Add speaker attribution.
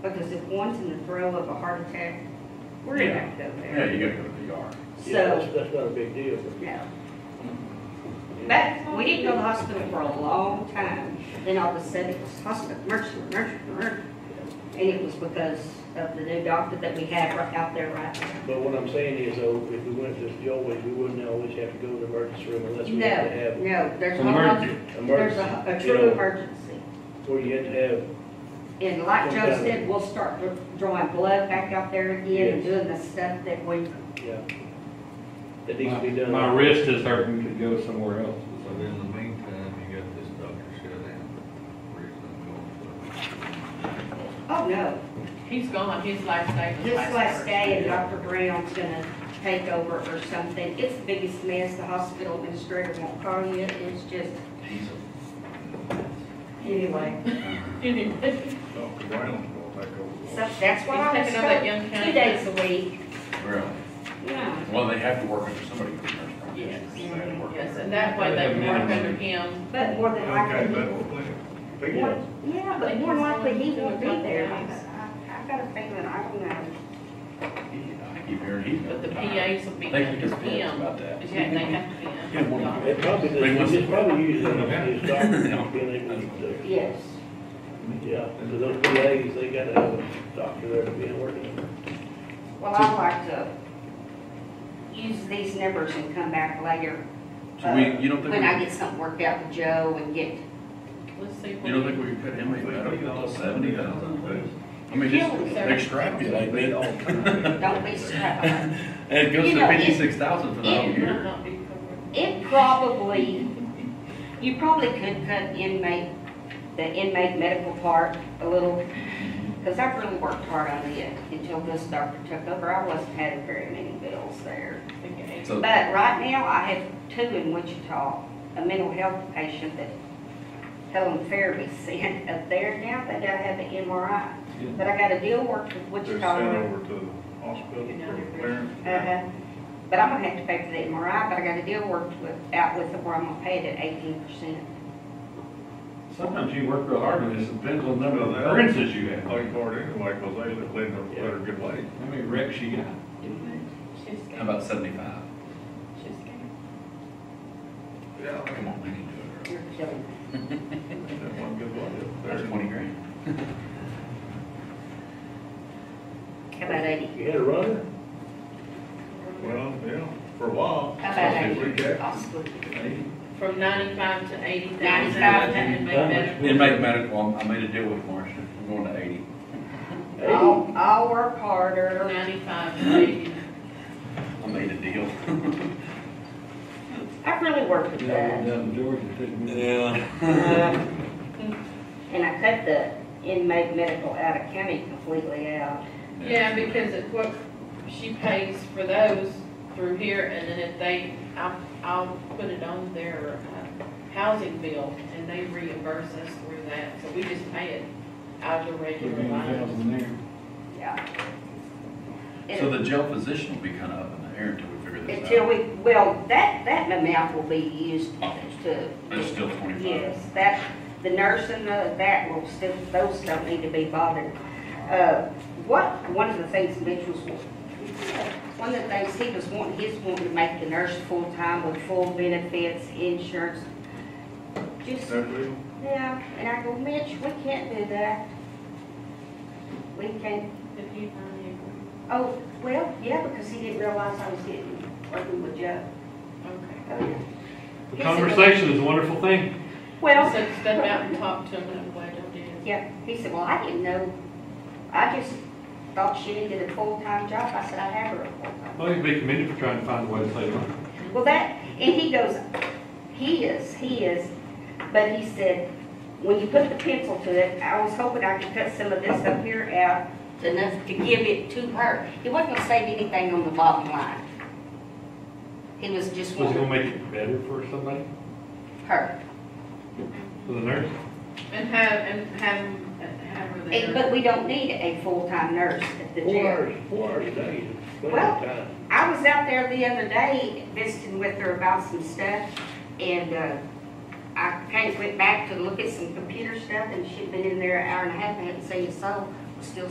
Speaker 1: Because if one's in the throes of a heart attack, we're gonna have to go
Speaker 2: Yeah,
Speaker 1: there.
Speaker 2: you gotta go to the ER.
Speaker 3: Yeah, that's,
Speaker 1: So,
Speaker 3: that's not a big deal.
Speaker 1: no. But we didn't go to the hospital for a long time. Then all of a sudden, it was hospital, emergency, emergency, emergency. And it was because of the new doctor that we had right out there right now.
Speaker 3: But what I'm saying is though, if we went to the always, we wouldn't always have to go to the emergency room unless we had to
Speaker 1: No,
Speaker 3: have
Speaker 1: no, there's
Speaker 4: An
Speaker 1: no,
Speaker 4: emergency.
Speaker 1: there's a, a
Speaker 3: emergency, you
Speaker 1: true
Speaker 3: know,
Speaker 1: emergency.
Speaker 3: where you had to have,
Speaker 1: And like Joe
Speaker 3: Okay.
Speaker 1: said, we'll start dr- drawing blood back out there again and
Speaker 3: Yes.
Speaker 1: doing the stuff that we,
Speaker 3: yeah. That needs to be done.
Speaker 4: My wrist is hurting, could go somewhere else.
Speaker 5: So in the meantime, you got this doctor shut in, reason I'm
Speaker 1: oh
Speaker 5: going
Speaker 1: no.
Speaker 6: He's gone, his last day was
Speaker 1: This
Speaker 6: last
Speaker 1: last
Speaker 6: Thursday.
Speaker 1: day and Dr. Brown's gonna take over or something. It's the biggest mess. The hospital administrator won't call you. It's just, anyway.
Speaker 6: Anyway,
Speaker 5: for. Dr. Brown's gonna take
Speaker 1: So
Speaker 5: over.
Speaker 1: that's what I
Speaker 6: He's
Speaker 1: was
Speaker 6: taking over that young
Speaker 1: told, two
Speaker 6: county.
Speaker 1: days a week.
Speaker 2: Really?
Speaker 1: Yeah.
Speaker 2: Well, they have to work under somebody who's a nurse practitioner.
Speaker 6: Yes.
Speaker 2: They have to work
Speaker 6: yes,
Speaker 2: under-
Speaker 6: and that way they can work under him.
Speaker 1: But more than
Speaker 5: Okay,
Speaker 1: likely,
Speaker 5: but,
Speaker 1: he-
Speaker 5: Pete,
Speaker 1: more- yeah, but more than likely he won't be there. I I got a feeling, I don't know.
Speaker 2: He- I keep hearing he's.
Speaker 6: But the
Speaker 2: retired.
Speaker 6: PAs will be
Speaker 2: They can
Speaker 6: under
Speaker 2: just bitch
Speaker 6: him.
Speaker 2: about that.
Speaker 6: Yeah, they have to be
Speaker 2: Yeah,
Speaker 6: under
Speaker 2: one of
Speaker 3: It
Speaker 6: him.
Speaker 3: probably,
Speaker 2: They must-
Speaker 3: it's probably usually his
Speaker 2: No.
Speaker 3: doctor being able to,
Speaker 1: Yes.
Speaker 3: yeah, because those PAs, they gotta have a doctor there to be working.
Speaker 1: Well, I'd like to use these numbers and come back later.
Speaker 2: So we,
Speaker 1: uh,
Speaker 2: you don't think,
Speaker 1: When I
Speaker 2: we-
Speaker 1: get something worked out with Joe and get,
Speaker 6: Let's see.
Speaker 2: you don't think we could cut him a better, seventy thousand? I mean, just
Speaker 6: Yeah, sir.
Speaker 2: extrapolate it all.
Speaker 1: don't be surprised.
Speaker 2: And it goes
Speaker 1: You
Speaker 2: to
Speaker 1: know, it-
Speaker 2: fifty-six thousand for the whole
Speaker 1: it-
Speaker 2: year.
Speaker 1: It probably, you probably could cut inmate, the inmate medical part a little, because I've really worked hard on it until this doctor took over. I wasn't having very many bills there.
Speaker 2: So,
Speaker 1: But right now, I have two in Wichita, a mental health patient that Helen Fairby sent up there. Now they gotta have an MRI. But I got a deal worked with
Speaker 5: they're sent
Speaker 1: Wichita.
Speaker 5: over to the hospital for clearance.
Speaker 1: Uh-huh. But I'm gonna have to pay for the MRI, but I got a deal worked with, out with them where I'm gonna pay it at eighteen percent.
Speaker 4: Sometimes you work real hard and it depends on the number of
Speaker 5: Well, that-
Speaker 4: occurrences you have.
Speaker 5: Play card anyway, cause they let them, let her get laid.
Speaker 4: How many wrecks you got?
Speaker 6: She's
Speaker 2: how
Speaker 6: scared.
Speaker 2: about seventy-five?
Speaker 6: She's scared.
Speaker 5: Yeah.
Speaker 2: Come on, we can do it.
Speaker 1: You're killing me.
Speaker 5: That one good one.
Speaker 2: There's twenty grand.
Speaker 1: How about eighty?
Speaker 3: You had a runner?
Speaker 5: Well, yeah, for a while.
Speaker 1: How about
Speaker 5: If we
Speaker 1: eighty?
Speaker 5: get-
Speaker 1: I'll split it.
Speaker 6: From ninety-five to eighty thousand.
Speaker 1: 95 to-
Speaker 6: And make
Speaker 3: How much?
Speaker 6: better.
Speaker 2: Inmate medical, I made a deal with Marcia, I'm going to eighty.
Speaker 3: Hey,
Speaker 1: I'll, I'll work harder.
Speaker 6: Ninety-five to eighty.
Speaker 2: I made a deal.
Speaker 1: I've really worked with
Speaker 4: Yeah, I
Speaker 1: that.
Speaker 4: went down to Georgia, it took me.
Speaker 1: And I cut the inmate medical out of county completely out.
Speaker 6: Yeah, because it, what, she pays for those through here, and then if they, I'll, I'll put it on their, uh, housing bill, and they reimburse us through that, so we just pay it out of the
Speaker 4: Took me
Speaker 6: regular
Speaker 4: a
Speaker 6: line.
Speaker 4: thousand there.
Speaker 1: Yeah.
Speaker 2: So the jail physician will be kind of up in the air until we figure this
Speaker 1: Until
Speaker 2: out.
Speaker 1: we, well, that, that amount will be used to.
Speaker 2: But it's still twenty-five.
Speaker 1: Yes, that, the nurse and the, that will still, those don't need to be bothered. Uh, what, one of the things Mitch was, one of the things he was wanting, he's wanting to make the nurse full-time with full benefits, insurance. Just,
Speaker 5: That real?
Speaker 1: yeah, and I go, Mitch, we can't do that. We can't,
Speaker 6: If you find
Speaker 1: oh, well, yeah, because he didn't realize I was getting, working with Joe.
Speaker 6: it, okay.
Speaker 1: Oh, yeah.
Speaker 4: The conversation is a wonderful thing.
Speaker 1: Well,
Speaker 6: So step out and talk to them, and wait on it.
Speaker 1: Yeah, he said, well, I didn't know, I just thought she needed a full-time job. I said, I have her a full-time.
Speaker 4: Well, you'd be commended for trying to find a way to save money.
Speaker 1: Well, that, and he goes, he is, he is, but he said, when you put the pencil to it, I was hoping I could cut some of this up here out enough to give it to her. He wasn't gonna save anything on the bottom line. He was just
Speaker 4: Was it gonna
Speaker 1: wanting
Speaker 4: make it better for somebody,
Speaker 1: her.
Speaker 4: for the nurse?
Speaker 6: And have, and have, have her
Speaker 1: And-
Speaker 6: there.
Speaker 1: But we don't need a full-time nurse at the
Speaker 3: Four
Speaker 1: jail.
Speaker 3: hours, four hours a day, is plenty
Speaker 1: Well-
Speaker 3: of time.
Speaker 1: I was out there the other day visiting with her about some stuff, and, uh, I kind of went back to look at some computer stuff, and she'd been in there an hour and a half, and hadn't seen a soul, was still